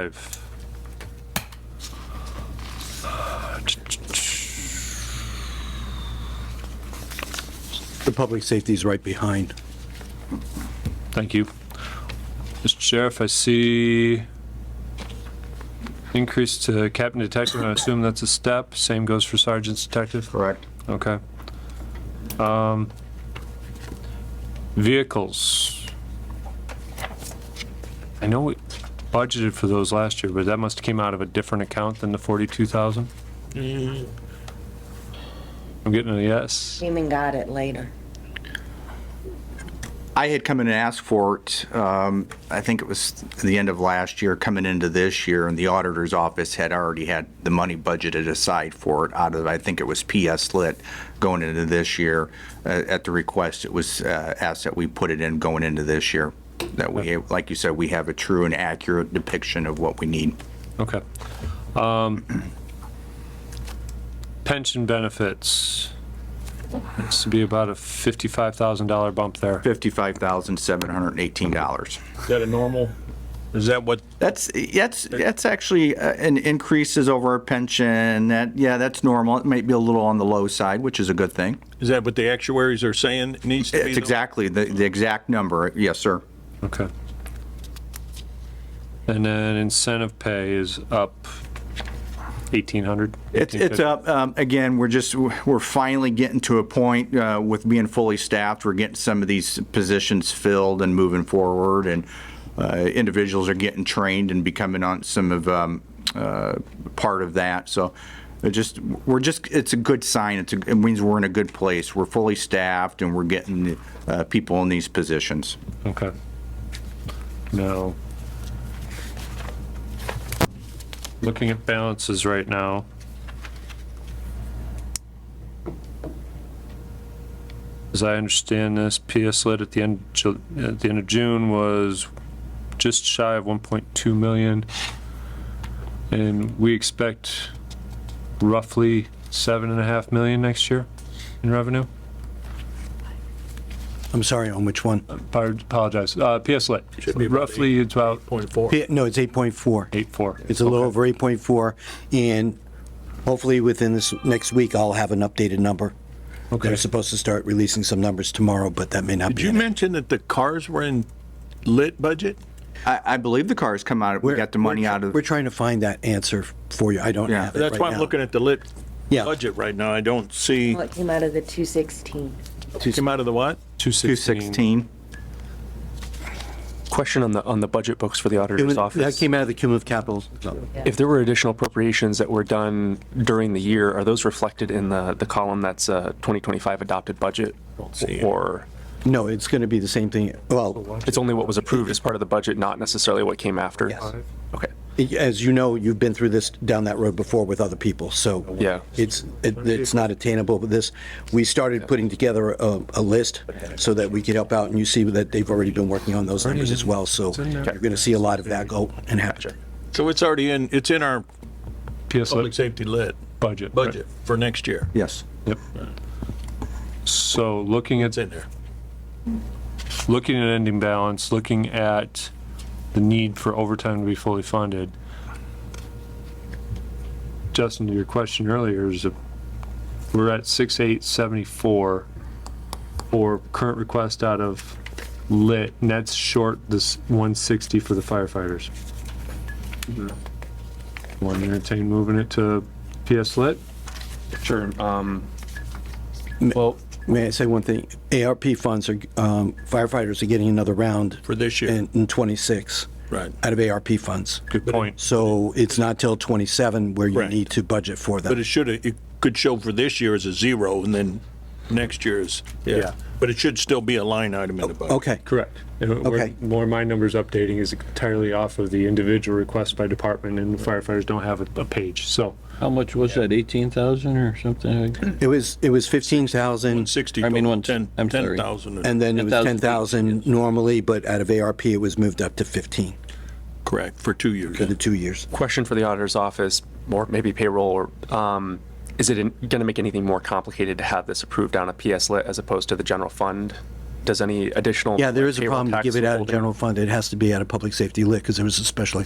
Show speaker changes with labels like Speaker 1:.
Speaker 1: I've-
Speaker 2: The public safety is right behind.
Speaker 1: Thank you. Mr. Sheriff, I see increase to captain detective, and I assume that's a step. Same goes for sergeant's detective?
Speaker 3: Correct.
Speaker 1: Okay. Um, Vehicles. I know we budgeted for those last year, but that must have came out of a different account than the 42,000? I'm getting a yes.
Speaker 4: Came and got it later.
Speaker 3: I had come in and asked for it, um, I think it was the end of last year, coming into this year, and the auditor's office had already had the money budgeted aside for it out of, I think it was PS Lit going into this year. Uh, At the request, it was uh, asked that we put it in going into this year, that we, like you said, we have a true and accurate depiction of what we need.
Speaker 1: Okay. Um, pension benefits. This would be about a fifty-five thousand dollar bump there.
Speaker 3: $55,718.
Speaker 5: Is that a normal? Is that what?
Speaker 3: That's, that's, that's actually uh, an increases over our pension. That, yeah, that's normal. It might be a little on the low side, which is a good thing.
Speaker 5: Is that what the actuaries are saying needs to be?
Speaker 3: It's
Speaker 5: though?
Speaker 3: exactly, the, the exact number. Yes, sir.
Speaker 1: Okay. And then incentive pay is up eighteen hundred.
Speaker 3: It's, it's up, um, again, we're just, we're finally getting to a point, uh, with being fully staffed. We're getting some of these positions filled and moving forward and, uh, individuals are getting trained and becoming on some of, um, uh, part of that. So it just, we're just, it's a good sign. It's, a- it means we're in a good place. We're fully staffed and we're getting, uh, people in these positions.
Speaker 1: Okay. Now. Looking at balances right now. As I understand this, PS Lit at the end, of Ju- at the end of June was just shy of 1.2 million. And we expect roughly seven and a half million next year in revenue.
Speaker 2: I'm sorry, on which one?
Speaker 1: Par- Apologize, uh, PS Lit,
Speaker 5: Should be about
Speaker 1: roughly it's about
Speaker 5: Point four.
Speaker 2: P- No, it's 8.4.
Speaker 1: 8.4.
Speaker 2: It's a little
Speaker 1: Okay.
Speaker 2: over 8.4, and hopefully within this next week, I'll have an updated number. They're supposed to start releasing some numbers tomorrow, but that may not
Speaker 5: Did
Speaker 2: be.
Speaker 5: you
Speaker 2: in it.
Speaker 5: mention that the cars were in lit budget?
Speaker 3: I, I believe the cars come out, we
Speaker 2: We're-
Speaker 3: got the money
Speaker 2: we're-
Speaker 3: out of.
Speaker 2: We're trying to find that answer for you. I don't
Speaker 3: Yeah.
Speaker 2: have it
Speaker 5: That's why
Speaker 2: right
Speaker 5: I'm
Speaker 2: now.
Speaker 5: looking at the lit
Speaker 2: Yeah.
Speaker 5: budget right now. I don't see,
Speaker 4: Well, it came out of the 216.
Speaker 5: came out of the what?
Speaker 1: 216.
Speaker 3: 216.
Speaker 6: Question on the, on the budget books for the auditor's
Speaker 2: That
Speaker 6: office.
Speaker 2: came out of the cumulative capital.
Speaker 6: If there were additional appropriations that were done during the year, are those reflected in the, the column that's uh, 2025 adopted budget? Or
Speaker 2: No, it's going to be the same thing. Well,
Speaker 6: it's only what was approved as part of the budget, not necessarily what came after?
Speaker 2: Yes.
Speaker 6: Okay,
Speaker 2: as you know, you've been through this, down that road before with other people, so.
Speaker 6: Yeah.
Speaker 2: It's, it- it's not attainable, but this, we started putting together a, a list so that we could help out, and you see that they've already been working on those numbers as well, so you're gonna see a lot of that go and happen.
Speaker 5: So it's already in, it's in our
Speaker 1: PS
Speaker 5: public
Speaker 1: Lit
Speaker 5: safety lit
Speaker 1: budget.
Speaker 5: budget for next year.
Speaker 3: Yes.
Speaker 1: Yep. So looking at,
Speaker 5: It's in there.
Speaker 1: looking at ending balance, looking at the need for overtime to be fully funded. Justin, to your question earlier is if we're at six eight seventy four or current request out of lit, and that's short this one sixty for the firefighters.
Speaker 5: Mm-hmm.
Speaker 1: Want to entertain moving it to PS lit?
Speaker 6: sure. um, Well,
Speaker 2: May I say one thing? ARP funds are, um, firefighters are getting another round.
Speaker 5: For this year.
Speaker 2: In, in 26.
Speaker 5: Right.
Speaker 2: Out of ARP funds.
Speaker 1: Good point.
Speaker 2: So it's not till 27 where you
Speaker 5: Correct.
Speaker 2: need to budget for
Speaker 5: But it
Speaker 2: them.
Speaker 5: should, it could show for this year as a zero and then next year is, yeah. But it should still be a line item in the budget.
Speaker 2: Okay,
Speaker 1: Correct. And we're-
Speaker 2: Okay.
Speaker 1: More my numbers updating is entirely off of the individual request by department and firefighters don't have a, a page, so.
Speaker 7: How much was that, 18,000 or something? like that?
Speaker 2: it was, it was 15,000.
Speaker 5: Sixty
Speaker 7: I mean,
Speaker 5: total,
Speaker 7: one-
Speaker 5: ten,
Speaker 7: I'm
Speaker 5: ten
Speaker 7: sorry.
Speaker 5: thousand.
Speaker 2: And then it was
Speaker 7: 10,000.
Speaker 2: 10,000 normally, but out of ARP, it was moved up to 15
Speaker 5: Correct, for two years.
Speaker 2: for the two years.
Speaker 6: question for the auditor's office, or maybe payroll, or um, is it going to make anything more complicated to have this approved on a PS lit as opposed to the general fund? Does any additional?
Speaker 2: Yeah, there is a
Speaker 6: payroll
Speaker 2: problem to
Speaker 6: tax
Speaker 2: give it out of
Speaker 6: withholding-
Speaker 2: general fund. It has to be out of public safety lit because there was a special